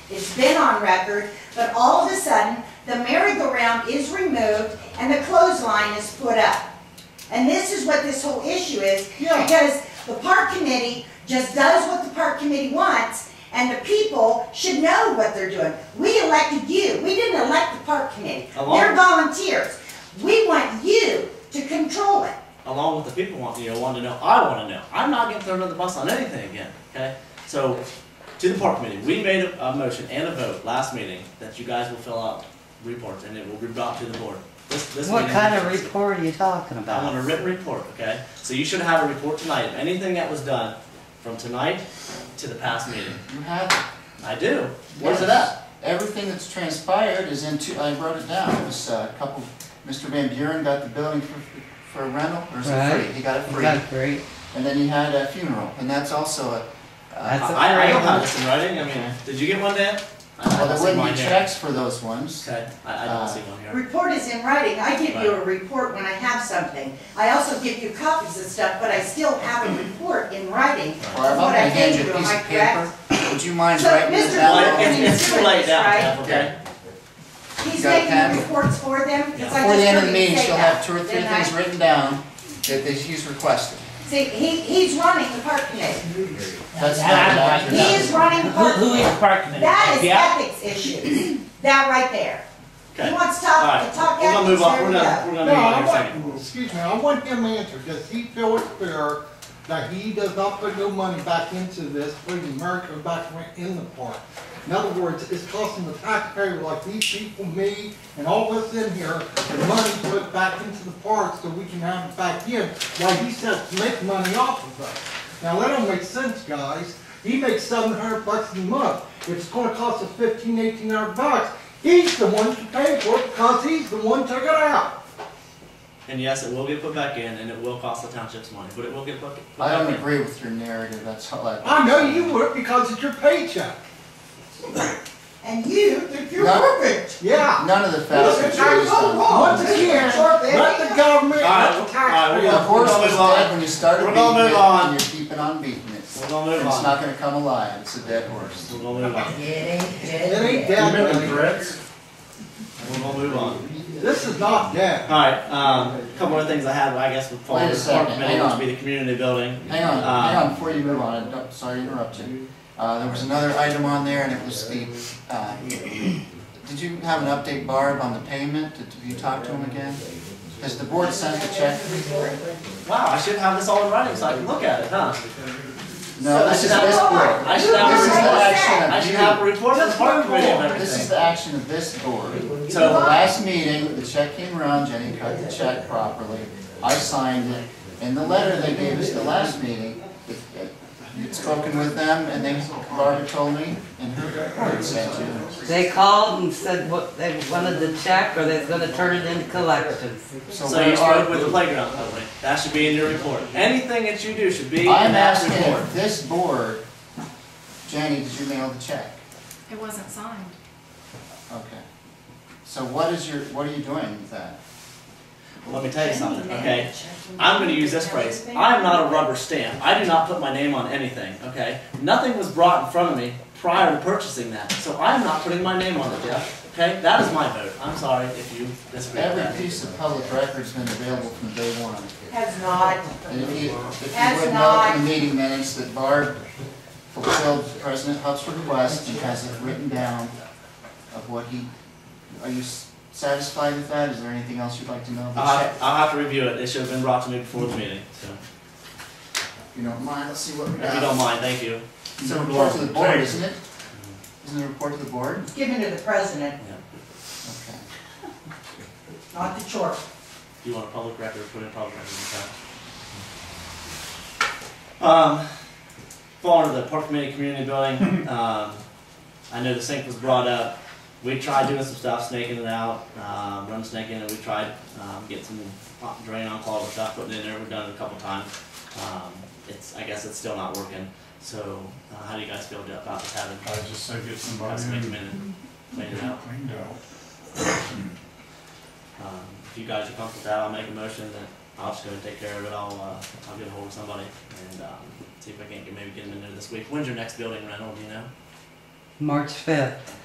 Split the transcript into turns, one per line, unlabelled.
It's been on record, but all of a sudden, the merry-go-round is removed and the clothesline is put up. And this is what this whole issue is,
Yeah.
because the park committee just does what the park committee wants, and the people should know what they're doing. We elected you, we didn't elect the park committee,
Along-
they're volunteers. We want you to control it.
along with the people want, you know, want to know, I want to know. I'm not getting thrown under the bus on anything again, okay? So, to the park committee, we made a, a motion and a vote last meeting that you guys will fill out reports and it will be brought to the board. This, this
What
meeting-
kind of report are you talking
I want
about?
a written report, okay? So you should have a report tonight of anything that was done from tonight to the past meeting.
You have it.
I do. Where's it at?
Everything that's transpired is in two, I wrote it down, it was uh, a couple, Mr. Van Buren got the building for, for rental, or is it free?
Right.
He got it free,
That's great.
and then he had a funeral, and that's also a,
That's
uh,
a-
I, I don't have this in writing, I mean, did you get one, Dan? I- I
well,
don't
there
see mine
wouldn't be
here.
checks for those ones.
Okay, I, I
Uh,
don't see one here.
Report is in writing, I give you a report when I have something. I also give you copies of stuff, but I still have a report in writing of
Or if I'm
what
gonna
I
hand
gave
you
you,
a
am
piece
I
of
correct?
paper, would you mind
So,
writing
Mr.
it
Well,
Lloyd,
down?
it's, it's too late now, Jeff, okay?
He's
You got a
making
pen?
the reports for them, because I
Before the
just
end of the
heard
meeting,
him say
she'll have
that.
two or three
didn't I?
things written down that, that he's requested.
See, he, he's running the park committee.
That's
Yeah, I'd
not
like
doctor.
to
He is running the
Who,
park
who
committee.
is park committee?
That is
Yeah.
ethics issues, that right there. He
Okay.
wants to
All
talk,
right,
to talk
we're gonna
ethics,
move on,
there
we're
we
gonna,
go.
we're
No,
gonna move on
I
in a second.
want, excuse me, I want him answered, does he feel it's fair that he does not put no money back into this, putting America back in the park? In other words, it's costing the taxpayer like these people, me, and all of us in here, the money put back into the park so we can have it back in, while he says to make money off of us. Now, that don't make sense, guys. He makes seven hundred bucks a month. It's gonna cost us fifteen, eighteen hundred bucks. He's the one to pay for it because he's the one took it out.
And yes, it will get put back in, and it will cost the townships money, but it will get put, put
I
back
don't
in.
agree with your narrative, that's all I.
I know you would because it's your paycheck.
And you think you're
No.
perfect.
Yeah.
None of the facts
Look,
that
it's
you
not
used
so
on.
wrong. Once again, let the government,
All right,
let the
all right,
taxpayer.
we're
The
gonna-
horse was
move on.
dead when you started
We're
beating
gonna
it,
move on.
and you're keeping on beating it.
We're gonna move
And it's
on.
not gonna come alive, it's a dead horse.
We're gonna move on,
It ain't dead, buddy.
we're gonna move on.
This is not dead.
Alright, um, a couple other things I have, I guess, would fall
Wait a
under the park
second,
committee,
hang
which
on.
would be the community building.
Hang on,
Uh,
hang on, before you move on, I don't- sorry to interrupt you. Uh, there was another item on there, and it was the, uh, did you have an update, Barb, on the payment? Did you talk to him again? Has the board sent the check?
Wow, I should have this all in writing so I can look at it, huh?
No, this is this board.
I should have,
This is the
a report-
action
I
of
should have a
you.
report to the park committee of
This is
everything.
the action of this board. So the
So,
last meeting, the check came around, Jenny cut the check properly, I signed it, and the letter they gave us the last meeting, it- it- you'd spoken with them, and they, Barbara told me, and her report sent to them.
They called and said what, they wanted the check or they're gonna turn it into collections.
So
so you
where are
started with the playground company, that should be in your report, anything that you do should be in
I'm
that
asking
report.
if this board, Jenny, did you mail the check?
It wasn't signed.
Okay. So what is your, what are you doing with that?
Let me tell you something, okay? I'm gonna use this phrase. I'm not a rubber stamp. I do not put my name on anything, okay? Nothing was brought in front of me prior to purchasing that, so I'm not putting my name on it, Jeff. Okay, that is my vote. I'm sorry if you disagree with
Every
that.
piece of public record's been available from day one.
Has not.
And if you, if you
That's
would note
not-
in the meeting minutes that Barb fulfilled President Huff's request and has it written down of what he, are you s- satisfied with that? Is there anything else you'd like to know
I'll
about the
have, I'll have to review it. It should have been brought to me before the meeting, so
check? If you don't mind, let's see what we
if you
got.
don't mind, thank you.
It's a report to the board, isn't it? Isn't it a report to the board?
It's given to the president,
Okay.
not the church.
Do you want a public record, put in public record, okay? Um, fall under the Park Committee Community Building, um, I know the sink was brought up. We tried doing some stuff, snaking it out, um, run snake in it, we tried, um, get some hot drain on call and stuff, putting it in there, we've done it a couple times. Um, it's, I guess it's still not working, so, uh, how do you guys feel about just having,
I just say get somebody
guys make a
who
minute, clean it out?
cleaned out.
Um, if you guys are comfortable with that, I'll make a motion that I'll just go and take care of it, I'll, uh, I'll get ahold of somebody and, um, see if I can't get, maybe get them in there this week. When's your next building rental, do you know?
March fifth.